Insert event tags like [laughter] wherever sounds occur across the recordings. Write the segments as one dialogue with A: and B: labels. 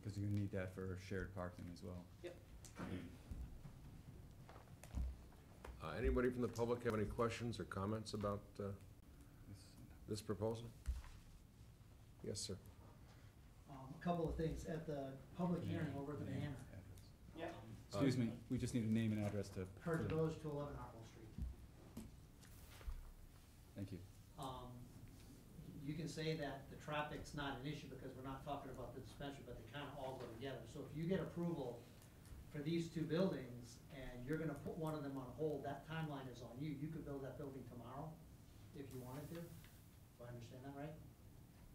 A: because you're gonna need that for shared parking as well.
B: Uh, Anybody from the public have any questions or comments about uh, this proposal? Yes, sir.
C: Um, a couple of things, at the public hearing over the
A: Name,
C: banner,
A: address.
C: um,
A: Excuse me, we just need a name and address to.
C: Heritage Village to eleven Hartwell Street.
A: Thank you.
C: Um, you can say that the traffic's not an issue because we're not talking about the dispensary, but they kinda all go together. So if you get approval for these two buildings and you're gonna put one of them on hold, that timeline is on you. You could build that building tomorrow if you wanted to. Do I understand that right?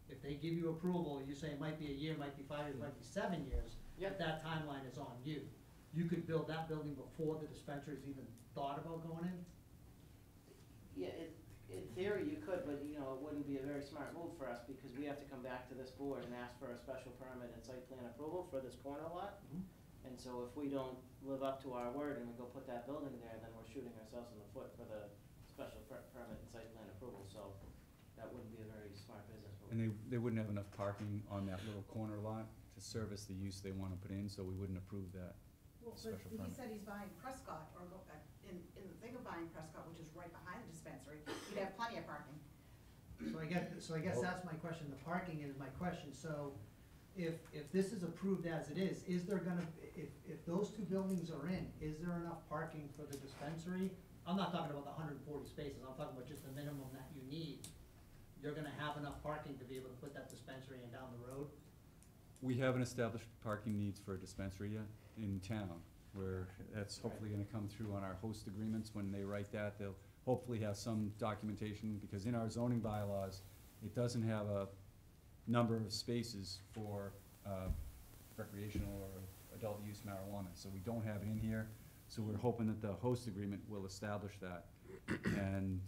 C: If they give you approval, you say it might be a year, might be five years, might be seven years,
D: Yeah.
C: but that timeline is on you. You could build that building before the dispensary's even thought about going in.
D: Yeah, in, in theory you could, but you know, it wouldn't be a very smart move for us because we have to come back to this board and ask for a special permit and site plan approval for this corner lot.
A: Mm-hmm.
C: Mhm.
D: And so if we don't live up to our word and we go put that building there, then we're shooting ourselves in the foot for the special per- permit and site plan approval, so that wouldn't be a very smart business
A: And
D: move.
A: they, they wouldn't have enough parking on that little corner lot to service the use they wanna put in, so we wouldn't approve that.
E: Well, but
A: Special
E: he
A: permit.
E: said he's buying Prescott or go, uh, in, in the thing of buying Prescott, which is right behind the dispensary, you'd have plenty of parking.
C: So I guess, so I guess
B: Well-
C: that's my question, the parking is my question, so if, if this is approved as it is, is there gonna, if, if those two buildings are in, is there enough parking for the dispensary? I'm not talking about the hundred and forty spaces, I'm talking about just the minimum that you need. You're gonna have enough parking to be able to put that dispensary in down the road?
A: We haven't established parking needs for a dispensary yet in town, where that's hopefully gonna come through on our host agreements, when they write that, they'll hopefully have some documentation, because in our zoning bylaws, it doesn't have a number of spaces for, uh, recreational or adult use marijuana, so we don't have it in here, so we're hoping that the host agreement will establish that. And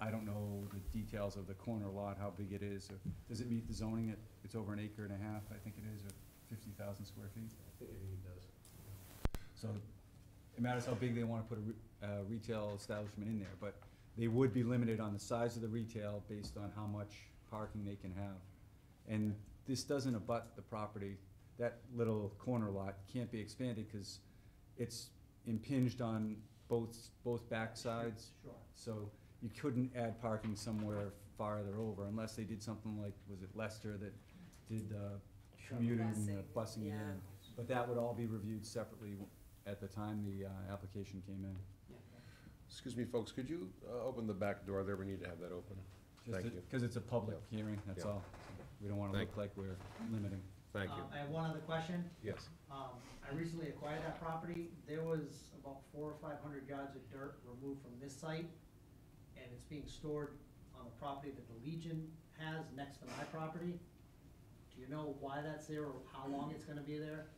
A: I don't know the details of the corner lot, how big it is, or does it meet the zoning? It- It's over an acre and a half, I think it is, or fifty thousand square feet. So it matters how big they wanna put a re- uh, retail establishment in there, but they would be limited on the size of the retail based on how much parking they can have. And this doesn't abut the property, that little corner lot can't be expanded, cause it's impinged on both, both backsides.
C: Sure.
A: So you couldn't add parking somewhere farther over unless they did something like, was it Leicester that did uh, commuting and uh, busing it in? But that would all be reviewed separately w- at the time the uh, application came in.
B: Excuse me, folks, could you uh, open the back door there? We need to have that open. Thank you.
A: Because it's a public hearing, that's
B: Yeah.
A: all. We don't want to
B: Thank
A: look like we're limiting.
B: Thank you.
C: Um, I have one other question.
B: Yes.
C: Um, I recently acquired that property, there was about four or five hundred yards of dirt removed from this site, and it's being stored on the property that the Legion has next to my property. Do you know why that's there or how long it's gonna be there?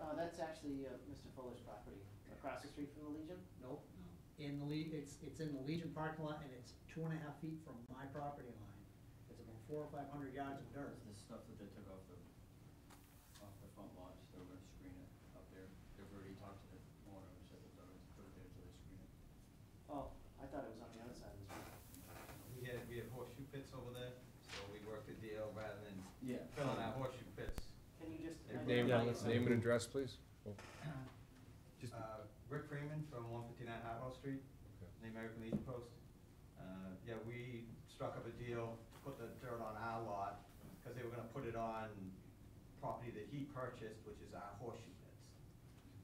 D: Uh, that's actually, uh, Mr. Fuller's property, across the street from the Legion.
C: Nope. In the Le- it's, it's in the Legion parking lot, and it's two and a half feet from my property line. It's about four or five hundred yards of dirt.
F: Is the stuff that they took off the, off the front lot, so they're gonna screen it up there? They've already talked to the owner, and said that they're gonna put it there till they screen it.
D: Oh, I thought it was on the other side of the street.
G: We had, we had horseshoe pits over there, so we worked a deal rather than
F: Yeah.
G: filling out horseshoe pits.
D: Can you just?
A: Name-
B: Name,
A: Yeah, let's-
B: name and address, please.
A: Just,
G: Uh, Rick Freeman from one fifty-nine Hartwell Street,
B: Okay.
G: the American Legion Post. Uh, yeah, we struck up a deal to put the dirt on our lot, cause they were gonna put it on property that he purchased, which is our horseshoe pits.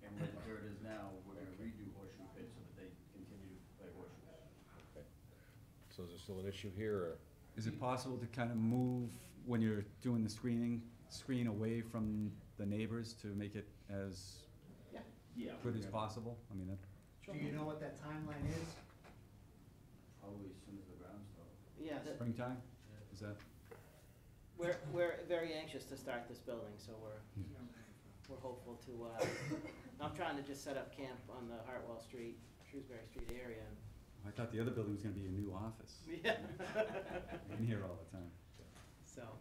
F: And where the dirt is now, we're gonna redo horseshoe pits so that they continue to play horseshoe.
B: So is there still an issue here, or?
A: is it possible to kind of move when you're doing the screening, screen away from the neighbors to make it as
F: Yeah.
A: good as
F: we're gonna-
A: possible? I mean, that,
C: Do you know what that timeline is?
F: Probably as soon as the ground's level.
D: Yeah, that,
A: springtime, is that?
D: We're, we're very anxious to start this building, so we're, we're hopeful to, uh, I'm trying to just set up camp on the Hartwell Street, Shrewsbury Street area.
A: I thought the other building was gonna be a new office.
D: Yeah.
A: I've been here all the time.
D: [laughs] So,
A: All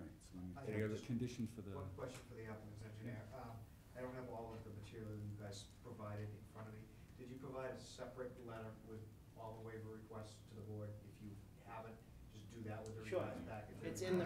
A: right, so I'm
H: I
A: gonna- the
B: have just
A: condition for the,
H: One question for the applicant's engineer. Um, I don't have all of the material that you guys provided in front of me. Did you provide a separate letter with all the waiver requests to the board? If you haven't, just do that with the
D: Sure.
H: revised package.
D: It's in the